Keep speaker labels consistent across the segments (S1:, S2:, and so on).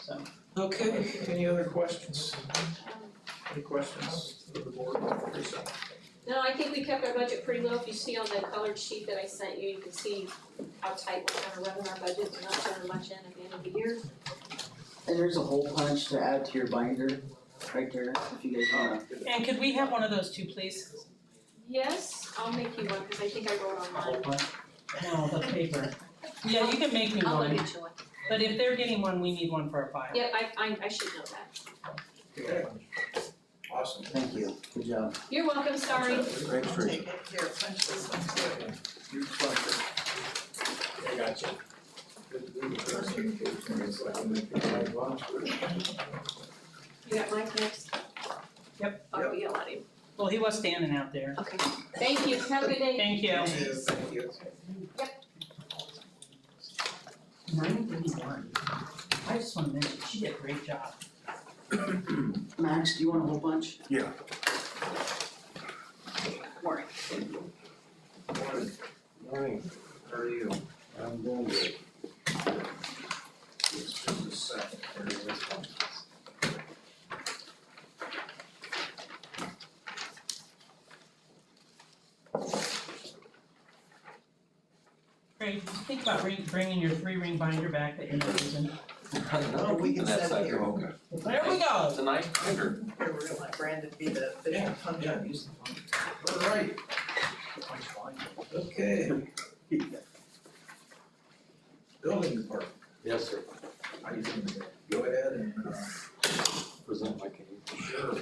S1: so.
S2: Okay,
S3: Any other questions? Any questions for the board? Teresa?
S1: No, I think we kept our budget pretty low, if you see on the colored sheet that I sent you, you can see how tight we're gonna run our budget, we're not turning much in at the end of the year.
S4: And there's a hole punch to add to your binder, right there, if you guys wanna.
S5: And could we have one of those too, please?
S1: Yes, I'll make you one, cause I think I wrote on
S4: Hole
S1: mine.
S4: punch.
S5: No, the paper. Yeah, you can make me
S1: I'll
S5: one,
S1: get you one.
S5: but if they're getting one, we need one for a file.
S1: Yeah, I, I, I should know that.
S3: Okay. Awesome.
S4: Thank you, good job.
S1: You're welcome, sorry.
S4: Great
S2: I'll
S4: for you.
S2: take it, here, punch this one too.
S3: You're welcome. I got you. Good to be with
S1: You got Mike next?
S5: Yep.
S1: I'll yell at him.
S5: Well, he was standing out there.
S1: Okay, thank you, have a good day.
S5: Thank you.
S3: you. Thank you.
S5: Nine thirty-one. I just wanna mention, she did a great job.
S4: Max, do you want a hole punch?
S1: Morning.
S3: Morning. Morning. How are you? I'm doing good. It's just a second. There it is.
S5: Craig, did you think about re- bringing your three-ring binder back that you're not using?
S2: Oh, we can set it here.
S6: okay.
S5: There we go.
S6: It's a nice binder.
S2: Here, we're gonna let Brandon be the official
S3: Yeah,
S2: puncher.
S3: yeah, use the phone. All right. Okay. Building department,
S6: Yes, sir.
S3: I can go ahead and, uh,
S6: Present my case.
S3: sure,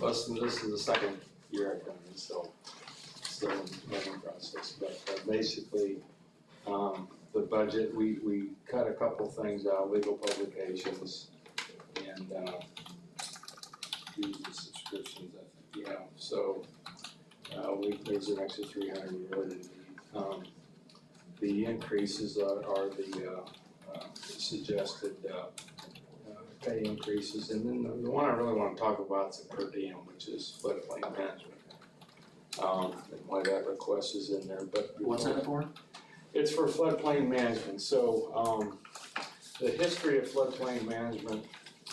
S6: Less than, this is the second year I've done this, so still in the learning process, but uh, basically, um, the budget, we, we cut a couple things out, legal publications and, uh, dues and subscriptions, I think, yeah, so, uh, we, there's an extra three hundred we really need. Um, the increases are, are the, uh, uh, suggested, uh, uh, pay increases, and then the- the one I really wanna talk about is the per diem, which is floodplain management. Um, and why that request is in there, but.
S4: What's that for?
S6: It's for floodplain management, so, um, the history of floodplain management,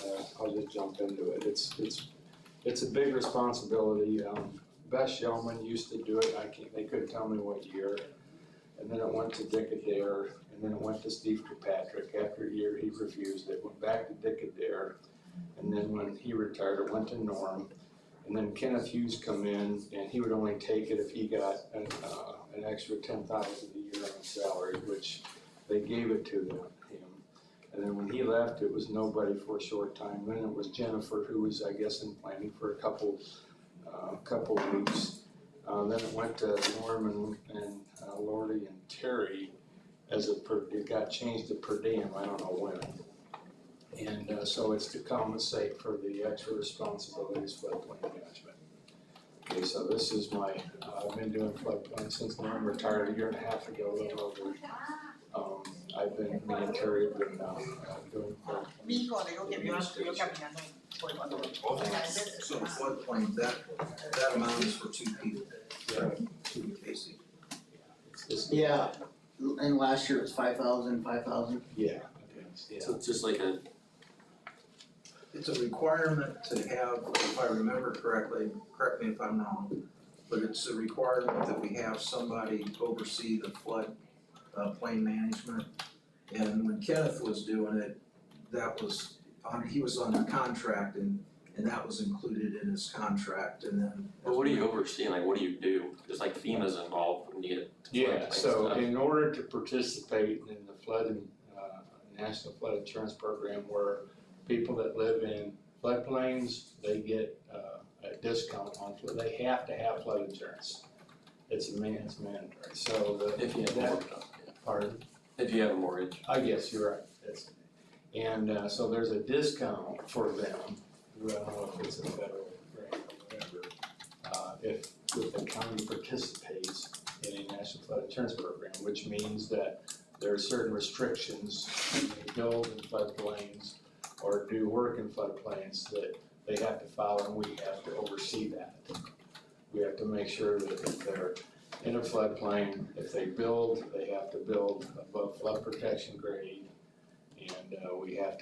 S6: uh, I'll just jump into it, it's, it's, it's a big responsibility, um, Best Yeoman used to do it, I can't, they couldn't tell me what year. And then it went to Dick Adair, and then it went to Steve Kirkpatrick, after a year he refused, it went back to Dick Adair. And then when he retired, it went to Norm, and then Kenneth Hughes come in, and he would only take it if he got an, uh, an extra ten thousand a year on salary, which they gave it to them, him. And then when he left, it was nobody for a short time, then it was Jennifer, who was, I guess, in planning for a couple, uh, couple weeks. Uh, then it went to Norman and uh, Lordy and Terry as a per, it got changed to per diem, I don't know when. And uh, so it's to compensate for the extra responsibilities for floodplain management. Okay, so this is my, uh, I've been doing floodplain since I'm retired a year and a half ago, a little over. Um, I've been, me and Terry have been uh, doing flood
S2: Me, you wanna go get me one, you're coming, I'm like, forty one dollars.
S7: So the floodplain, that, that amount is for two people, two cases.
S6: It's-
S4: Yeah, and last year it was five thousand, five thousand.
S6: Yeah, yeah.
S8: So it's just like a,
S7: It's a requirement to have, if I remember correctly, correct me if I'm wrong, but it's a requirement that we have somebody oversee the flood, uh, plain management. And when Kenneth was doing it, that was, on he was under contract and, and that was included in his contract and then.
S8: but what do you oversee and like what do you do? Cause like FEMA's involved when you get to floodplain
S6: Yeah, so
S8: stuff.
S6: in order to participate in the flood, and, uh, National Flood Insurance Program, where people that live in floodplains, they get, uh, a discount on, flood. they have to have flood insurance. It's a man, it's mandatory, so the.
S8: If you have a
S6: that-
S8: mortgage, yeah.
S6: Pardon?
S8: if you have a mortgage,
S6: I guess you're right, that's, and, uh, so there's a discount for them, I don't know if it's a federal grant or whatever. Uh, if, if the county participates in a national flood insurance program, which means that there are certain restrictions when they build in floodplains or do work in floodplains that they have to follow and we have to oversee that. We have to make sure that if they're in a floodplain, if they build, they have to build above flood protection grade. And, uh, we have to